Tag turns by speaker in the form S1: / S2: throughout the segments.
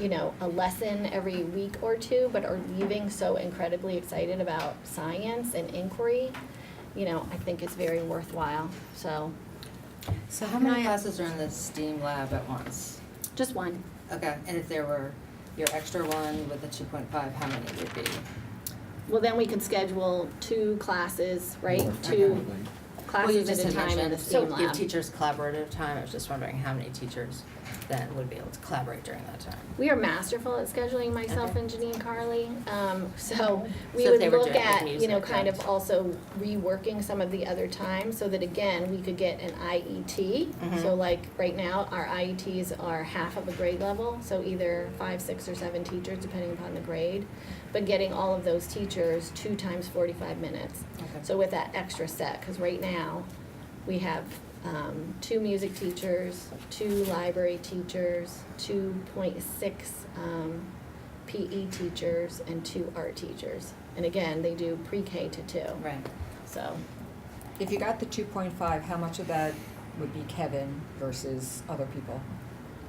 S1: you know, a lesson every week or two, but are leaving so incredibly excited about science and inquiry, you know, I think it's very worthwhile. So,
S2: So how many
S1: Can I-
S2: classes are in the STEAM lab at once?
S1: just one.
S2: Okay, and if there were your extra one with the two point five, how many would be?
S1: Well, then we could schedule two classes, right?
S3: More
S1: Two
S3: frequently.
S2: Well, you
S1: classes at
S2: just
S1: a
S2: had
S1: time in
S2: mentioned
S1: the STEAM
S2: Give
S1: lab.
S2: teachers collaborative time, I was just wondering how many teachers then would be able to collaborate during that time?
S1: We are masterful at scheduling myself
S2: Okay.
S1: and Janine Carly, um, so we
S2: So if
S1: would
S2: they were
S1: look
S2: doing, like,
S1: at, you know,
S2: music
S1: kind of
S2: and-
S1: also reworking some of the other times so that again, we could get an IET. So
S2: Mhm.
S1: like, right now, our IETs are half of a grade level, so either five, six, or seven teachers, depending upon the grade. But getting all of those teachers two times forty-five minutes.
S2: Okay.
S1: So with that extra set, because right now, we have um, two music teachers, two library teachers, two point six PE teachers, and two art teachers. And again, they do pre-K to two,
S2: Right,
S1: so.
S4: If you got the two point five, how much of that would be Kevin versus other people?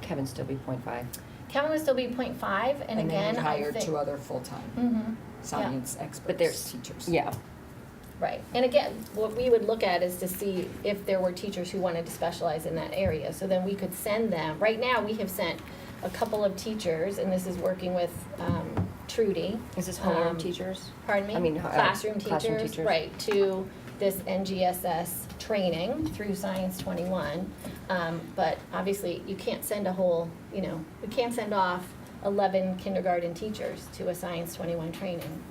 S5: Kevin still be point five.
S1: Kevin would still be point five, and again, I
S4: then you hired two
S1: think.
S4: other full-time
S1: Mhm.
S4: science experts,
S5: But there's-
S4: teachers.
S5: Yeah,
S1: Right, and again, what we would look at is to see if there were teachers who wanted to specialize in that area, so then we could send them. Right now, we have sent a couple of teachers, and this is working with um, Trudy.
S5: is this homeroom
S1: um,
S5: teachers?
S1: Pardon me?
S5: I mean, uh,
S1: Classroom
S5: classroom
S1: teachers,
S5: teachers.
S1: right, to this NGSS training through Science Twenty-One. Um, But obviously, you can't send a whole, you know, we can't send off eleven kindergarten teachers to a Science Twenty-One training.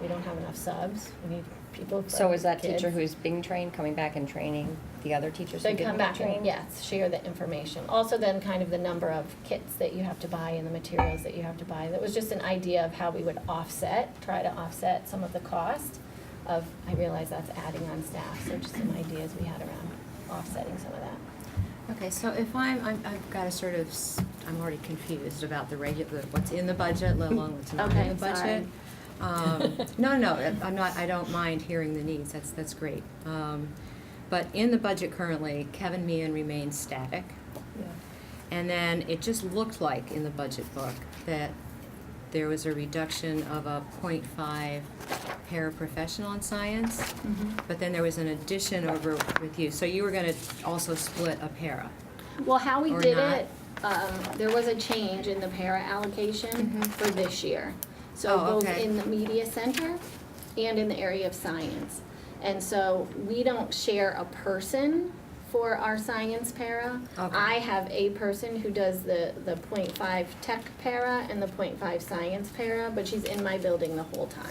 S1: We don't have enough subs, we need people for
S5: So is that teacher
S1: kids.
S5: who's being trained coming back and training the other teachers who
S1: They come
S5: didn't get
S1: back
S5: trained?
S1: and, yes, share the information. Also then kind of the number of kits that you have to buy and the materials that you have to buy. That was just an idea of how we would offset, try to offset some of the cost of, I realize that's adding on staff, so just some ideas we had around offsetting some of that.
S6: Okay, so if I'm, I'm, I've got a sort of, s- I'm already confused about the regular, what's in the budget, let alone what's not in
S1: Okay,
S6: the budget. Um, no, no, I- I'm not, I don't mind hearing the needs, that's, that's great. Um, but in the budget currently, Kevin Meehan remains static. And then it just looked like in the budget book that there was a reduction of a point five paraprofessional in science.
S5: Mm-hmm.
S6: But then there was an addition over with you, so you were gonna also split a para.
S1: Well, how we
S6: Or
S1: did
S6: not.
S1: it, um, there was a change in the para allocation for this year. So
S6: Mm-hmm. Oh,
S1: both
S6: okay.
S1: in the media center and in the area of science. And so we don't share a person for our science para.
S6: Okay.
S1: I have a person who does the, the point five tech para and the point five science para, but she's in my building the whole time.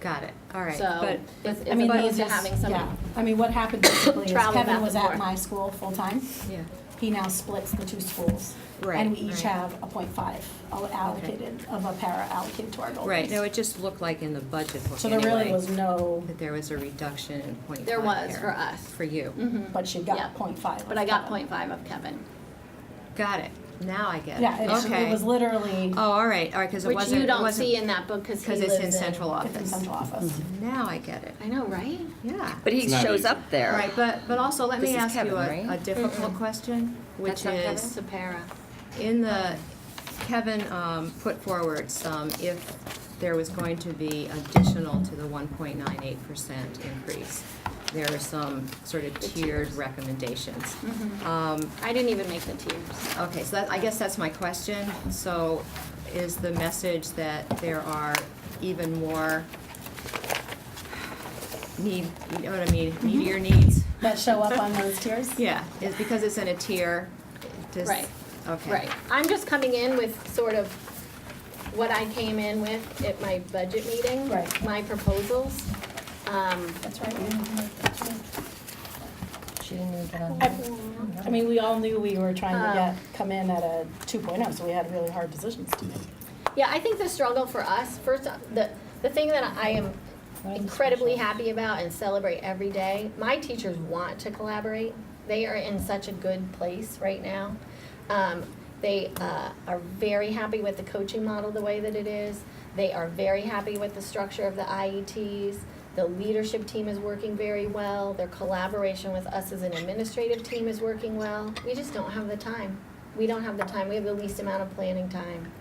S6: Got it, all right,
S1: So
S6: but,
S1: it's,
S6: but-
S1: it's
S6: but-
S1: needs to having
S7: Yeah,
S1: some,
S7: I mean, what happened basically is
S1: Travel back
S7: Kevin was
S1: and
S7: at
S1: forth.
S7: my school full-time.
S6: yeah,
S7: He now splits the two schools.
S6: Right,
S7: And we each
S6: right.
S7: have a point five allocated, of a para allocated to our goals.
S6: right, no, it just looked like in the budget book
S7: So there really
S6: anyway,
S7: was no,
S6: that there was a reduction in point five
S1: there was
S6: para
S1: for us. Mm-hmm.
S6: For you,
S7: but she
S1: Yeah.
S7: got point five.
S1: But I got
S7: of that.
S1: point five of Kevin.
S6: got it, now I get it,
S7: Yeah, it-
S6: okay.
S7: it was literally,
S6: Oh, all right, all right, cause it
S1: Which
S6: wasn't,
S1: you
S6: it
S1: don't
S6: wasn't-
S1: see in that book because he
S6: Cause
S1: lives in.
S6: it's in central
S7: it's in
S6: office, Mm-hmm.
S7: central office.
S6: now I get it,
S1: I know, right?
S6: yeah.
S5: But he
S3: It's not
S5: shows
S3: easy.
S5: up there.
S6: All right, but, but also, let
S5: This
S6: me
S5: is
S6: ask you
S5: Kevin,
S6: a, a
S5: right?
S6: difficult question, which
S5: That's not Kevin?
S6: is, in the, Kevin, um, put forward some, if there was going to be additional to the one point nine eight percent increase. There are some sort of tiered recommendations.
S7: Mm-hmm.
S6: Um,
S1: I didn't even make the tiers.
S6: Okay, so that, I guess that's my question. So is the message that there are even more need, you know what I mean, needier needs?
S7: Mm-hmm. That show up on those tiers?
S6: Yeah, is because it's in a tier, does,
S1: Right.
S6: okay.
S1: Right. I'm just coming in with sort of what I came in with at my budget meeting.
S7: Right.
S1: My proposals. Um,
S7: That's right. we didn't make that change.
S5: She didn't even get on.
S7: I I mean, we all knew we were trying
S6: Uh.
S7: to get, come in at a two oh, so we had really hard decisions to make.
S1: Yeah, I think the struggle for us, first, uh, the, the thing that I am incredibly happy about and celebrate every day, my teachers want to collaborate. They are in such a good place right now. Um, they uh, are very happy with the coaching model the way that it is. They are very happy with the structure of the IETs. The leadership team is working very well. Their collaboration with us as an administrative team is working well. We just don't have the time. We don't have the time. We have the least amount of planning time.